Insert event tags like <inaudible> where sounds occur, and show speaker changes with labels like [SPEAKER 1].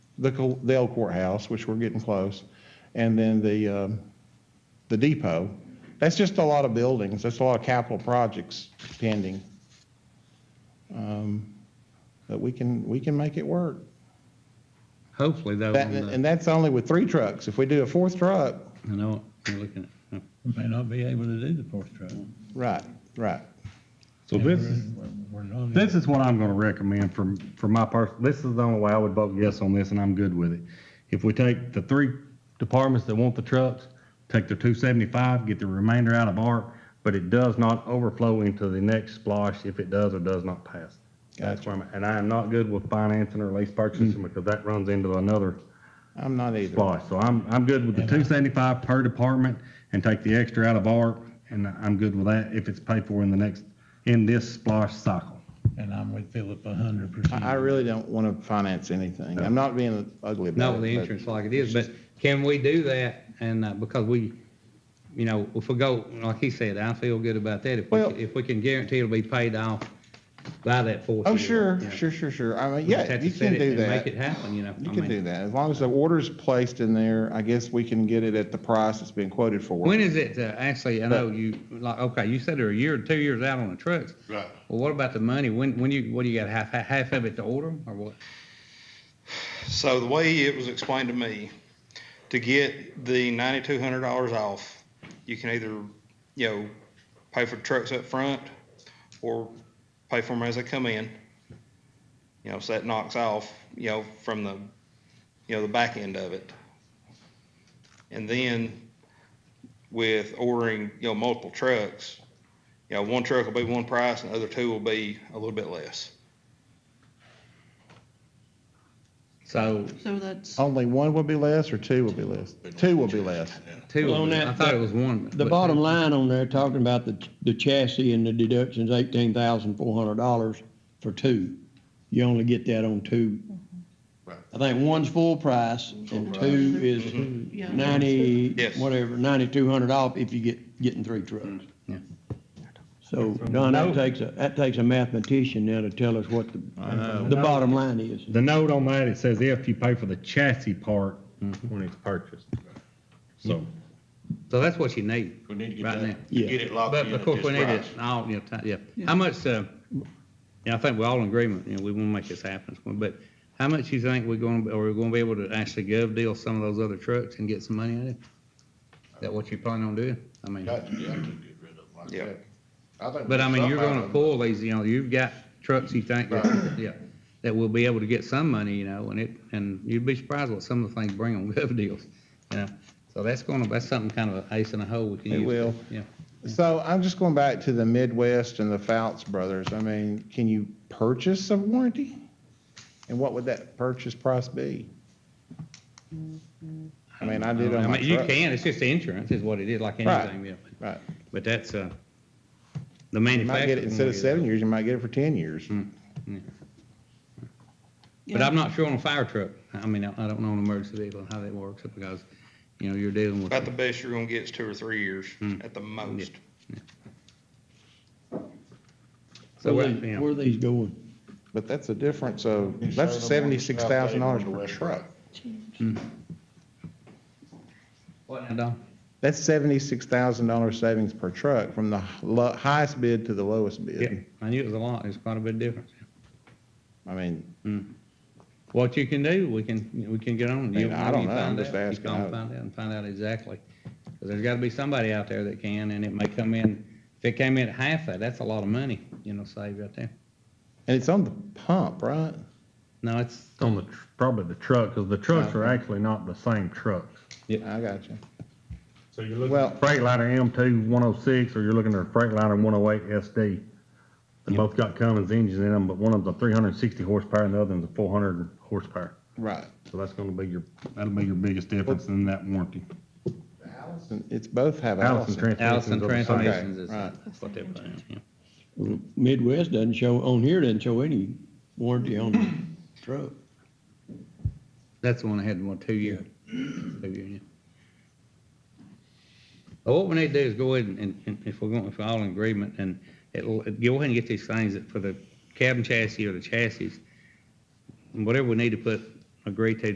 [SPEAKER 1] the, co- the old courthouse, which we're getting close, and then the, um, the depot. That's just a lot of buildings. That's a lot of capital projects pending. Um, But we can, we can make it work.
[SPEAKER 2] Hopefully though,
[SPEAKER 1] That,
[SPEAKER 2] on the-
[SPEAKER 1] and that's only with three trucks. If we do a fourth truck,
[SPEAKER 2] I know what you're looking at.
[SPEAKER 3] We may not be able to do the fourth truck.
[SPEAKER 1] right, right.
[SPEAKER 4] So this is,
[SPEAKER 3] We're not.
[SPEAKER 4] this is what I'm gonna recommend from, from my person, this is the only way I would vote yes on this, and I'm good with it. If we take the three departments that want the trucks, take the two seventy-five, get the remainder out of ARC, but it does not overflow into the next splosh if it does or does not pass. That's where I'm, at. and I am not good with financing or lease
[SPEAKER 1] Mm.
[SPEAKER 4] purchasing, because that runs into another
[SPEAKER 1] I'm not either.
[SPEAKER 4] splosh. So I'm, I'm good with the two seventy-five per department, and take the extra out of ARC, and I'm good with that if it's paid for in the next, in this splosh cycle.
[SPEAKER 3] And I'm with Philip a hundred percent.
[SPEAKER 1] I, I really don't want to finance anything. I'm not being ugly about it.
[SPEAKER 2] No, the
[SPEAKER 1] but-
[SPEAKER 2] insurance like it is, but can we do that? And, uh, because we, you know, if we go, like he said, I feel good about that. If we,
[SPEAKER 1] Well-
[SPEAKER 2] if we can guarantee it'll be paid off by that fourth year.
[SPEAKER 1] Oh, sure,
[SPEAKER 2] you know.
[SPEAKER 1] sure, sure, sure. I mean,
[SPEAKER 2] We just
[SPEAKER 1] yeah,
[SPEAKER 2] have
[SPEAKER 1] you
[SPEAKER 2] to set
[SPEAKER 1] can
[SPEAKER 2] it
[SPEAKER 1] do
[SPEAKER 2] and Make it
[SPEAKER 1] that.
[SPEAKER 2] happen, you know.
[SPEAKER 1] You
[SPEAKER 2] I
[SPEAKER 1] can
[SPEAKER 2] mean,
[SPEAKER 1] do that. As long as the order's placed in there, I guess we can get it at the price it's been quoted for.
[SPEAKER 2] When is it, uh, actually, I know you, like, okay, you said they're a year, two years out on the trucks.
[SPEAKER 5] Right.
[SPEAKER 2] Well, what about the money? When, when you, what do you got, half, half of it to order 'em, or what?
[SPEAKER 5] So the way it was explained to me, to get the ninety-two hundred dollars off, you can either, you know, pay for the trucks up front or pay for them as they come in. You know, so that knocks off, you know, from the, you know, the back end of it. And then with ordering, you know, multiple trucks, you know, one truck will be one price and the other two will be a little bit less.
[SPEAKER 2] So,
[SPEAKER 6] So that's,
[SPEAKER 1] Only one will be less or two will be less? Two will be less.
[SPEAKER 2] two,
[SPEAKER 7] Well,
[SPEAKER 2] of
[SPEAKER 7] on
[SPEAKER 2] them. I
[SPEAKER 7] that-
[SPEAKER 2] thought it was one.
[SPEAKER 7] The
[SPEAKER 2] but-
[SPEAKER 7] bottom line on there, talking about the, the chassis and the deductions, eighteen thousand four hundred dollars for two. You only get that on two.
[SPEAKER 5] Right.
[SPEAKER 7] I think one's full price and two is
[SPEAKER 6] yeah.
[SPEAKER 7] ninety,
[SPEAKER 5] Yes.
[SPEAKER 7] whatever, ninety-two hundred off if you get, getting three trucks.
[SPEAKER 2] yeah.
[SPEAKER 7] So, Don, that takes a, that takes a mathematician now to tell us what the, the bottom line is.
[SPEAKER 4] The note on that, it says if you pay for the chassis part when it's purchased. So,
[SPEAKER 2] So that's what you need.
[SPEAKER 7] We need to get
[SPEAKER 2] right
[SPEAKER 7] that-
[SPEAKER 2] now.
[SPEAKER 7] Yeah.
[SPEAKER 8] Get it locked
[SPEAKER 2] But
[SPEAKER 8] in
[SPEAKER 2] of
[SPEAKER 8] at
[SPEAKER 2] course,
[SPEAKER 8] this
[SPEAKER 2] we need it,
[SPEAKER 8] price.
[SPEAKER 2] all, you know, ti- yeah. How much, uh, yeah, I think we're all in agreement, you know, we want to make this happen. But how much you think we're going, to or we're going to be able to actually gov deal some of those other trucks and get some money out of it? Is that what you plan on doing? I mean,
[SPEAKER 8] Got to, got to get rid of them like
[SPEAKER 5] Yeah.
[SPEAKER 8] that. I think.
[SPEAKER 2] but I mean, you're
[SPEAKER 8] somehow-
[SPEAKER 2] going to pull these, you know, you've got trucks you think, that- yeah, that will be able to get some money, you know, and it, and you'd be surprised what some of the things bring on <laughs> gov deals, you know? So that's going to, that's something kind of an ace in the hole we can
[SPEAKER 1] It
[SPEAKER 2] use.
[SPEAKER 1] will.
[SPEAKER 2] Yeah.
[SPEAKER 1] So I'm just going back to the Midwest and the Fouts brothers. I mean, can you purchase a warranty? And what would that purchase price be? I mean, I did on my
[SPEAKER 2] Oh, mean, You
[SPEAKER 1] truck.
[SPEAKER 2] can, it's just insurance is what it is, like
[SPEAKER 1] Right.
[SPEAKER 2] anything, yeah.
[SPEAKER 1] Right.
[SPEAKER 2] But that's, uh, the
[SPEAKER 1] You might
[SPEAKER 2] manufacturer.
[SPEAKER 1] get it, instead of seven years, you might get it for 10 years.
[SPEAKER 2] Hmm. But I'm not sure on a fire truck. I mean, I I don't know an emergency vehicle and how that works because, you know, you're dealing with.
[SPEAKER 5] About the best you're gonna get is two or three years at the most.
[SPEAKER 2] So,
[SPEAKER 7] Where
[SPEAKER 2] we're-
[SPEAKER 7] these-
[SPEAKER 2] you know,
[SPEAKER 7] Where these going?
[SPEAKER 1] But that's a difference of,
[SPEAKER 8] You sold
[SPEAKER 1] that's
[SPEAKER 8] them on the
[SPEAKER 1] seventy-six thousand dollars per
[SPEAKER 8] south table on
[SPEAKER 1] truck.
[SPEAKER 8] the
[SPEAKER 2] what uh, now, Don?
[SPEAKER 1] That's seventy-six thousand dollar savings per truck from the lo- highest bid to the lowest
[SPEAKER 2] Yeah,
[SPEAKER 1] bid.
[SPEAKER 2] I knew it was a lot. It's quite a bit of difference.
[SPEAKER 1] I mean,
[SPEAKER 2] What you can do, we can, we can get on. You-
[SPEAKER 1] Man, I don't
[SPEAKER 2] you
[SPEAKER 1] know. I'm
[SPEAKER 2] find
[SPEAKER 1] just
[SPEAKER 2] out. You
[SPEAKER 1] asking.
[SPEAKER 2] call and Find out and find out exactly. Because there's got to be somebody out there that can, and it may come in, if it came in at half that, that's a lot of money, you know, saved right there.
[SPEAKER 1] and it's on the pump, right?
[SPEAKER 2] No, it's,
[SPEAKER 4] on the, tr- probably the truck, because the trucks are actually not the same trucks.
[SPEAKER 1] I got you.
[SPEAKER 4] So you're
[SPEAKER 1] looking- Well-
[SPEAKER 4] Freightliner M two one oh six, or you're looking at a Freightliner one oh eight SD. They both got Cummins engines in them, but one of them's a three hundred and sixty horsepower and the other one's a four hundred horsepower.
[SPEAKER 1] Right.
[SPEAKER 4] So that's gonna be your, that'll be your biggest difference in that warranty.
[SPEAKER 1] Allison, it's both have
[SPEAKER 4] Allison
[SPEAKER 1] Allison.
[SPEAKER 4] transmissions.
[SPEAKER 2] Allison
[SPEAKER 4] are the same.
[SPEAKER 2] Transmissions is
[SPEAKER 1] right.
[SPEAKER 2] what they're paying. yeah.
[SPEAKER 7] Midwest doesn't show, on here doesn't show any warranty on the truck.
[SPEAKER 2] That's the one I had in one, two year. Two year, yeah. Well, What we need to do is go ahead and- and, and if we're going, if we're all in agreement, and it'll, go ahead and get these things that for the cabin chassis or the chassis, whatever we need to put, agree to